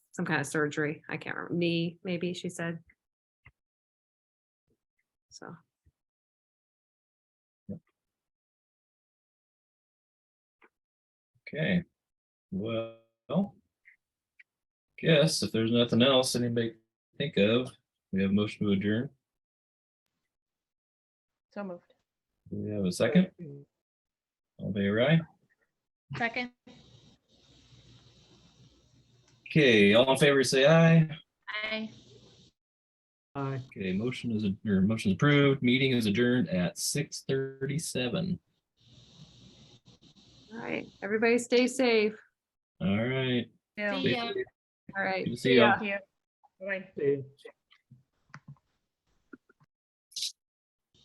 some kind of surgery. I can't remember, knee, maybe she said. So. Okay, well. Guess if there's nothing else anybody can think of, we have a motion to adjourn. So moved. Do we have a second? All day, right? Second. Okay, all in favor, say aye. Aye. Aye. Okay, motion is, or motion is approved. Meeting is adjourned at six thirty-seven. All right, everybody stay safe. All right. See stay ya. safe. All right. Good to See ya. Thank you. Bye. See ya.